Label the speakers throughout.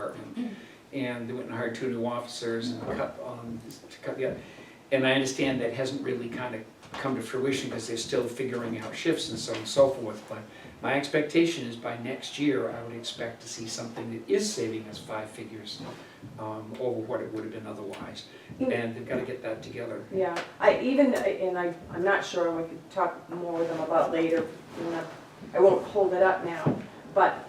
Speaker 1: department. And they went and hired two new officers and cut, um, to cut the, other. and I understand that hasn't really kind of come to fruition because they're still figuring out shifts and so on and so forth. But my expectation is by next year, I would expect to see something that is saving us five figures um, over what it would have been otherwise.
Speaker 2: Mm.
Speaker 1: And they've got to get that together.
Speaker 2: Yeah, I even, and I, I'm not sure, we could talk more with them about later, you know, I won't hold it up now, but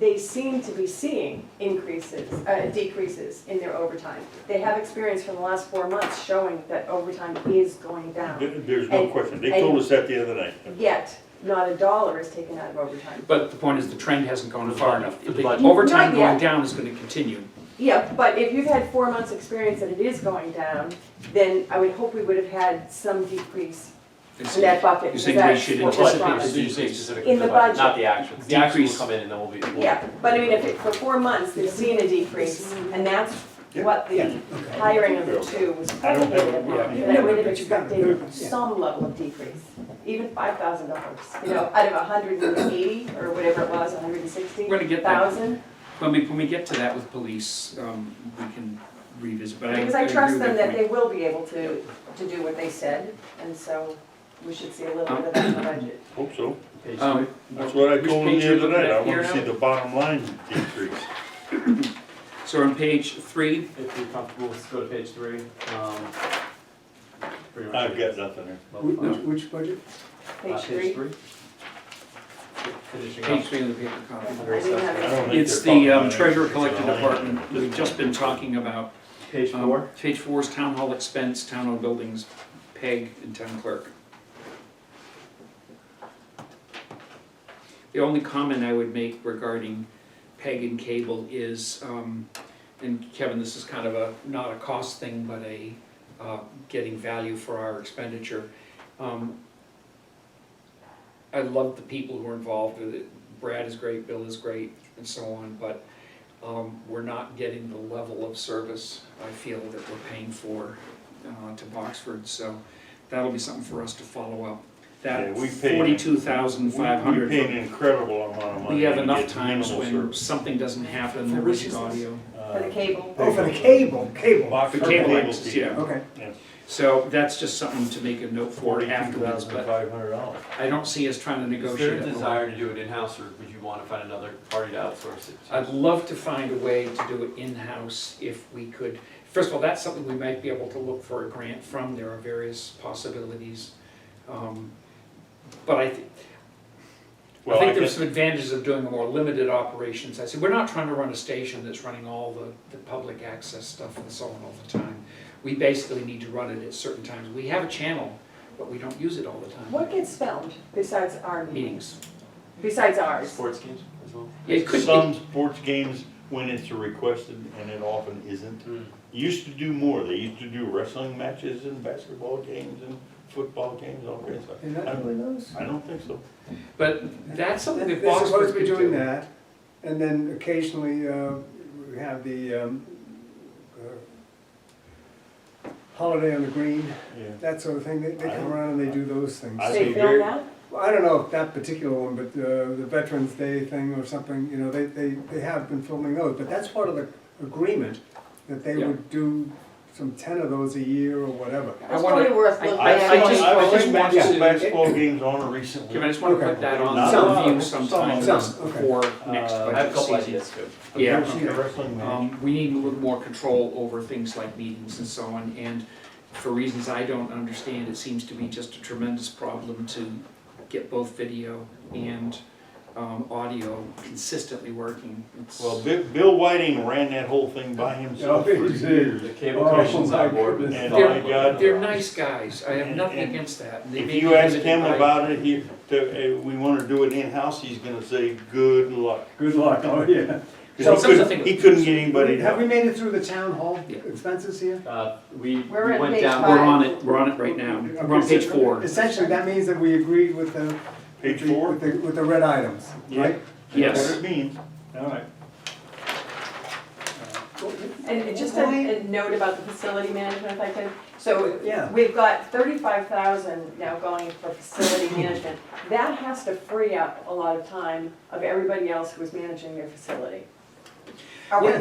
Speaker 2: they seem to be seeing increases, uh, decreases in their overtime. They have experience from the last four months showing that overtime is going down,
Speaker 3: There- There's no
Speaker 2: And-
Speaker 3: question. They told us that the other night.
Speaker 2: yet not a dollar is taken out of overtime.
Speaker 1: But the point is, the trend hasn't gone far enough.
Speaker 4: The budget.
Speaker 1: Overtime
Speaker 2: Not
Speaker 1: going
Speaker 2: yet.
Speaker 1: down is going to continue.
Speaker 2: Yeah, but if you've had four months' experience that it is going down, then I would hope we would have had some decrease in that bucket.
Speaker 1: You're
Speaker 2: because
Speaker 1: saying we
Speaker 2: that's
Speaker 1: should
Speaker 2: what we're
Speaker 1: anticipate
Speaker 2: trying.
Speaker 1: this
Speaker 4: As you say, specific
Speaker 2: In
Speaker 4: to
Speaker 2: the budget.
Speaker 4: Not the actions. The actions
Speaker 1: Decrease.
Speaker 4: will come in and then we'll be. we'll-
Speaker 2: Yeah, but I mean, if it, for four months, they've seen a decrease, and that's what the hiring of the two was
Speaker 3: I don't
Speaker 2: predicated
Speaker 3: think-
Speaker 2: upon.
Speaker 3: yeah.
Speaker 2: And I would have expected some level of decrease, even five thousand dollars, you know, out of a hundred and eighty, or whatever it was, a hundred and sixty
Speaker 1: We're gonna get that.
Speaker 2: thousand.
Speaker 1: When we, when we get to that with police, um, we can revisit, but I.
Speaker 2: Because I trust
Speaker 1: agree
Speaker 2: them
Speaker 1: with
Speaker 2: that
Speaker 1: your
Speaker 2: they will be able to, to do what they said, and so we should see a little bit of that in the budget.
Speaker 3: Hope so.
Speaker 4: Page
Speaker 1: point. Um,
Speaker 4: three.
Speaker 3: That's what I
Speaker 1: Which
Speaker 3: told them
Speaker 1: page
Speaker 3: the
Speaker 1: are you
Speaker 3: other night.
Speaker 1: looking
Speaker 3: I
Speaker 1: at here
Speaker 3: wanna see
Speaker 1: now?
Speaker 3: the bottom line decrease.
Speaker 1: So on page three,
Speaker 4: If you're comfortable, let's go to page three. Um, pretty much
Speaker 3: I've
Speaker 4: it.
Speaker 3: got nothing there.
Speaker 4: Well,
Speaker 5: Which,
Speaker 4: uh,
Speaker 5: which budget?
Speaker 3: Uh,
Speaker 2: Page
Speaker 4: Page
Speaker 2: three,
Speaker 4: three. Finishing
Speaker 1: page
Speaker 4: up.
Speaker 1: three of the paper copy.
Speaker 4: Very
Speaker 2: I didn't
Speaker 4: simple.
Speaker 2: have
Speaker 3: I don't think
Speaker 1: It's
Speaker 3: they're
Speaker 1: the um,
Speaker 3: talking
Speaker 1: treasurer
Speaker 3: about it.
Speaker 1: collector
Speaker 3: It's online.
Speaker 1: department, we've just been talking about.
Speaker 4: Page
Speaker 1: um,
Speaker 4: four.
Speaker 1: Page four is town hall expense, town hall buildings, PEG, and town clerk. The only comment I would make regarding PEG and cable is, um, and Kevin, this is kind of a, not a cost thing, but a, uh, getting value for our expenditure. Um, I love the people who are involved with it. Brad is great, Bill is great, and so on, but um, we're not getting the level of service I feel that we're paying for uh, to Boxford, so that'll be something for us to follow up. That
Speaker 3: Yeah, we pay-
Speaker 1: forty-two thousand five
Speaker 3: We-
Speaker 1: hundred.
Speaker 3: We paid an incredible amount of money.
Speaker 1: We have
Speaker 3: and
Speaker 1: enough
Speaker 3: get
Speaker 1: times
Speaker 3: minimal
Speaker 1: when
Speaker 3: service.
Speaker 1: something doesn't happen,
Speaker 5: For
Speaker 1: there
Speaker 5: which
Speaker 1: is
Speaker 5: is this?
Speaker 1: audio.
Speaker 2: for the
Speaker 3: Uh,
Speaker 2: cable.
Speaker 5: Oh, for the cable, cable.
Speaker 3: Box
Speaker 1: For
Speaker 3: for
Speaker 1: cable
Speaker 3: cable
Speaker 1: access,
Speaker 3: TV.
Speaker 1: yeah.
Speaker 5: Okay.
Speaker 1: So that's just something to make a note for afterwards, but
Speaker 3: dollars.
Speaker 1: I don't see us trying to
Speaker 4: Is there
Speaker 1: negotiate.
Speaker 4: a
Speaker 1: it.
Speaker 4: desire to do it in-house or would you want to find another party to outsource it? to?
Speaker 1: I'd love to find a way to do it in-house if we could. First of all, that's something we might be able to look for a grant from, there are various possibilities. Um, But I think, I
Speaker 3: Well, I
Speaker 1: think there's
Speaker 3: guess,
Speaker 1: some advantages of doing a more limited operations. I said, we're not trying to run a station that's running all the, the public access stuff and so on all the time. We basically need to run it at certain times. We have a channel, but we don't use it all the time.
Speaker 2: What gets filmed besides our meetings,
Speaker 1: Meetings.
Speaker 2: besides ours?
Speaker 4: Sports games as well?
Speaker 1: It could,
Speaker 3: some sports games, when it's requested, and it often isn't, used to do more. They used to do wrestling matches and basketball games and football games, all kinds of
Speaker 5: Is
Speaker 3: stuff.
Speaker 5: that
Speaker 3: I-
Speaker 5: really those?
Speaker 3: I don't think so.
Speaker 1: but that's something that
Speaker 5: They're
Speaker 1: Boxford
Speaker 5: supposed to
Speaker 1: could
Speaker 5: be doing
Speaker 1: do.
Speaker 5: that, and then occasionally, uh, we have the, um, uh, holiday on the green,
Speaker 3: Yeah.
Speaker 5: that sort of thing, they, they
Speaker 3: I
Speaker 5: come
Speaker 3: don't-
Speaker 5: around and they do those things.
Speaker 3: I-
Speaker 2: They
Speaker 3: think
Speaker 2: film
Speaker 3: very-
Speaker 2: that?
Speaker 5: Well, I don't know if that particular one, but, uh, the Veterans Day thing or something, you know, they, they, they have been filming those, but that's part of the agreement, that they
Speaker 1: Yeah.
Speaker 5: would do some ten of those a year or whatever.
Speaker 1: I
Speaker 2: That's
Speaker 1: wanna-
Speaker 2: probably worth
Speaker 1: I-
Speaker 2: looking
Speaker 3: I,
Speaker 1: I
Speaker 2: at.
Speaker 1: just-
Speaker 3: I, I
Speaker 1: I
Speaker 3: was
Speaker 1: just want
Speaker 3: watching
Speaker 1: to-
Speaker 3: basketball games on recently.
Speaker 1: Kevin, I just want to
Speaker 5: Okay.
Speaker 1: put that
Speaker 3: Not a
Speaker 1: on
Speaker 3: lot.
Speaker 1: review sometime
Speaker 5: Some,
Speaker 1: just
Speaker 5: okay.
Speaker 1: before next
Speaker 3: Uh,
Speaker 4: I have a
Speaker 1: budget
Speaker 4: couple
Speaker 1: season.
Speaker 4: ideas too.
Speaker 3: I've never
Speaker 1: Yeah.
Speaker 3: seen a wrestling match.
Speaker 1: Um, we need a little more control over things like meetings and so on, and for reasons I don't understand, it seems to be just a tremendous problem to get both video and, um, audio consistently working. It's-
Speaker 3: Well, Bill, Bill Whiting ran that whole thing by himself for
Speaker 5: Yeah, he did.
Speaker 3: years.
Speaker 4: The cable
Speaker 5: Oh,
Speaker 4: commission's
Speaker 5: my
Speaker 4: on board with
Speaker 3: goodness.
Speaker 4: it.
Speaker 3: They're- My God.
Speaker 1: They're nice guys, I have
Speaker 3: And-
Speaker 1: nothing
Speaker 3: and
Speaker 1: against that. and they
Speaker 3: If
Speaker 1: may
Speaker 3: you
Speaker 1: be
Speaker 3: ask
Speaker 1: limited
Speaker 3: him
Speaker 1: by-
Speaker 3: about it, he, to, uh, we wanna do it in-house, he's gonna say, good luck.
Speaker 5: Good luck, oh, yeah.
Speaker 3: 'Cause
Speaker 1: So
Speaker 3: he
Speaker 1: sometimes I
Speaker 3: couldn't-
Speaker 1: think-
Speaker 3: He couldn't get anybody to
Speaker 5: Have we made it through the town hall
Speaker 1: Yeah.
Speaker 5: expenses here?
Speaker 4: Uh, we, we
Speaker 2: We're at
Speaker 4: went
Speaker 2: page
Speaker 4: down.
Speaker 1: We're on it, we're on it right now, we're on page four.
Speaker 5: Essentially, that means that we agreed with the.
Speaker 3: Page
Speaker 5: with the-
Speaker 3: four?
Speaker 5: With the, with the red items,
Speaker 3: Yeah.
Speaker 5: right?
Speaker 3: That's
Speaker 1: Yes,
Speaker 3: what it means.
Speaker 5: All right.
Speaker 2: And it- just a, a note about the facility management, if I could. So
Speaker 5: Yeah.
Speaker 2: we've got thirty-five thousand now going for facility management. That has to free up a lot of time of everybody else who's managing their facility. Are we
Speaker 5: Yes.